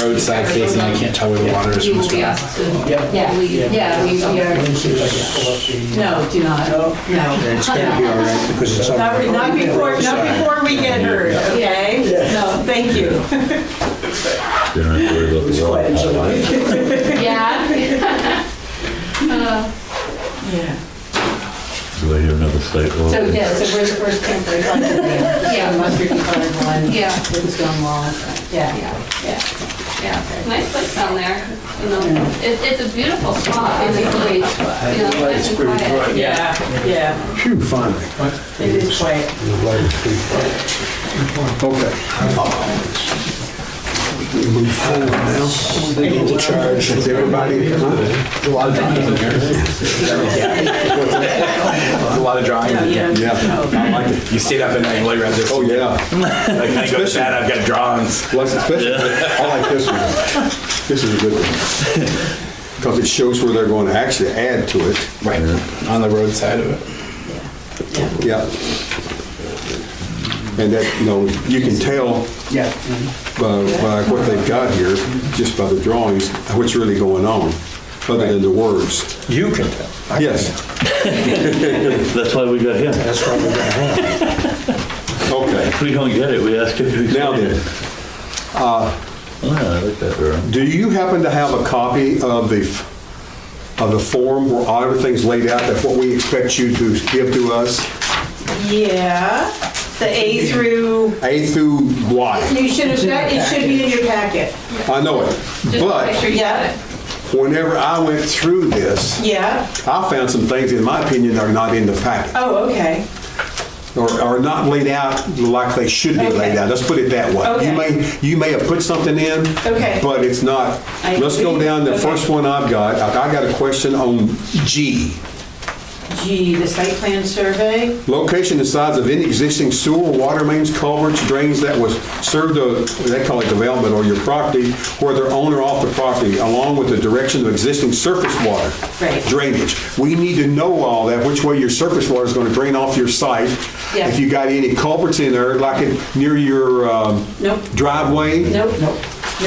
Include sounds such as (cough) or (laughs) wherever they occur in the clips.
roadside facing, I can't tell where the water is You from will be the asked to Yeah. leave. Yeah, we we Let (laughs) are, me see if I can pull up the. No, do not. No? No. It's gonna be all right because it's all. Not re- not before, not before we get hurt, okay? No. Thank you. You don't have to worry about It's the quite water. insulated. yeah. (laughs) Uh, Yeah. Do they have another state law? So, yeah, so where's the first temporary one? Yeah, the mustard colored one. Yeah. With the stone wall. Yeah. Yeah, yeah, yeah. Nice place down there. You know, it, it's a beautiful spot. It's a great, you know, nice and quiet. Yeah, yeah, Phew, finally. it is quite. I'm glad it's free. Okay. We Move forward now. The charge. Is everybody, huh? A lot of drawing in here. A lot of drawing in here. Yeah. I like it. You stayed up at night and lay around this. Oh, yeah. Like, I go to bed, I've got drawings. Less expensive. I like this one. This is a good one. Because it shows where they're going to actually add to it. Right, on the roadside of it. Yeah. And that, you know, you can tell Yeah. by, by what they've got here, just by the drawings, what's really going on, other than the words. You can tell. Yes, That's why we got him. If That's probably right. okay. we don't get it, we ask him to Now explain then, it. Oh, yeah, I like that, Earl. do you happen to have a copy of the, of the form where all everything's laid out, that what we expect you to give to us? Yeah, the A through, A through Y? you should have, got- it should be in your packet. I know it. Just make sure But you got it. whenever I went through this, Yeah, I found some things, in my opinion, are not in the packet. oh, okay. or are not laid out like they should be laid Okay. out. Let's put it that way. You Okay. may, you may have put something in, Okay. but it's not. I Let's go agree. down, the Okay. first one I've got, I I got a question on G. Gee, the site plan survey? Location and size of any existing sewer, water mains, culverts, drains that was served, of- they call it development, or your property, whether on or off the property, along with the direction of existing surface water. Right. Drainage. We need to know all that, which way your surface water is going to drain off your site. Yeah. If you got any culverts in there, like in- near your um, Nope, driveway, nope, nope,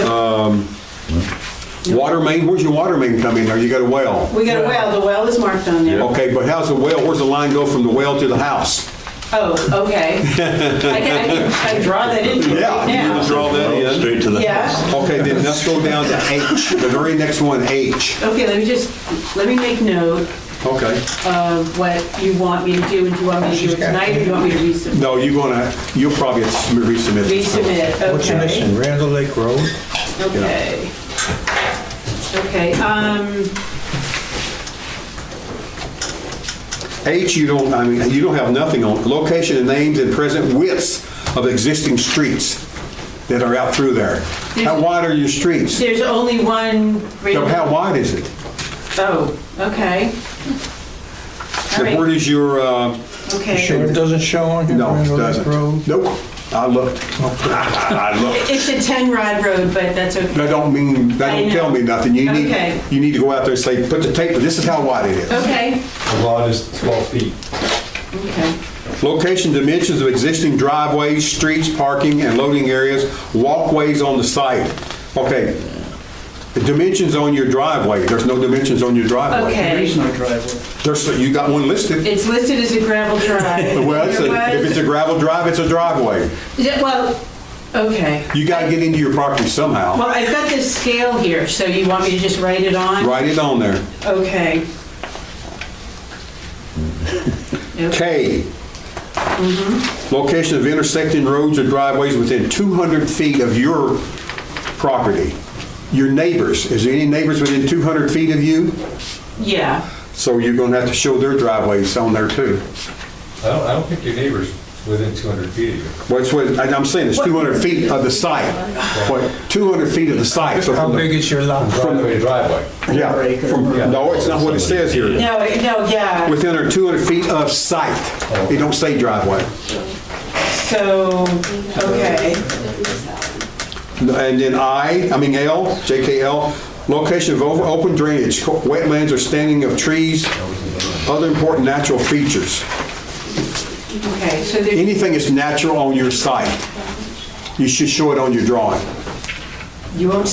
Uh, nope. water main, where's your water main come in there? You got a well. We got a well, the well is marked on there. Okay, but how's the well, where's the line go from the well to the house? Oh, okay. I can, I can- I can draw that in here Yeah, right you can now. draw that in. Straight to the house. Yeah, Okay, then let's go down to H, the very next one, H. okay, let me just, let me make note Okay. of what you want me to do, and do you want me to do it tonight, or do you want me to resubmit? No, you're gonna, you'll probably have to resubmit. this. Resubmit, okay. What's your mission? Randall Lake Road? Okay. Okay, um, H, you don't, I mean, you don't have nothing on, location and names and present widths of existing streets that are out through there. How wide are your streets? there's only one. So How wide is it? Oh, okay. All And where right, does your, uh, okay. it doesn't show on no, it doesn't. Nope, I looked. (laughs) I looked. It's a 10 rod road, but that's okay. That don't mean, that I don't know. tell me nothing. You need, Okay. you need to go out there and say, put the tape, this is how wide it is. Okay, The lot is 12 feet. okay. Location, dimensions of existing driveways, streets, parking, and loading areas, walkways on the site. Okay. The dimensions on your driveway, there's no dimensions on your driveway. There is Okay. no driveway. There's, you got one listed. It's listed as a gravel drive. (laughs) Well, it's a- if it's a gravel drive, it's a driveway. Yeah, Well, okay. You gotta get into your property somehow. Well, I've got this scale here, so you want me to just write it on? Write it on there. Okay. K. Mm-hmm. Location of intersecting roads or driveways within 200 feet of your property. Your neighbors, is there any neighbors within 200 feet of you? Yeah. So you're gonna have to show their driveways on there too. I don't, I don't think your neighbor's within 200 feet of you. Well, it's what, and I'm saying it's two hundred feet of the site, what, two hundred feet of the site. so How from the- big is your lot? Driveway to driveway. Yeah, from, no, it's not what it says here. No, no, yeah. Within or two hundred feet of site, it don't say driveway. So, okay. And then I, I mean L, JKL, location of over- open drainage, co- wetlands or standing of trees, other important natural features. Okay, so there's Anything that's natural on your site, you should show it on your drawing. You won't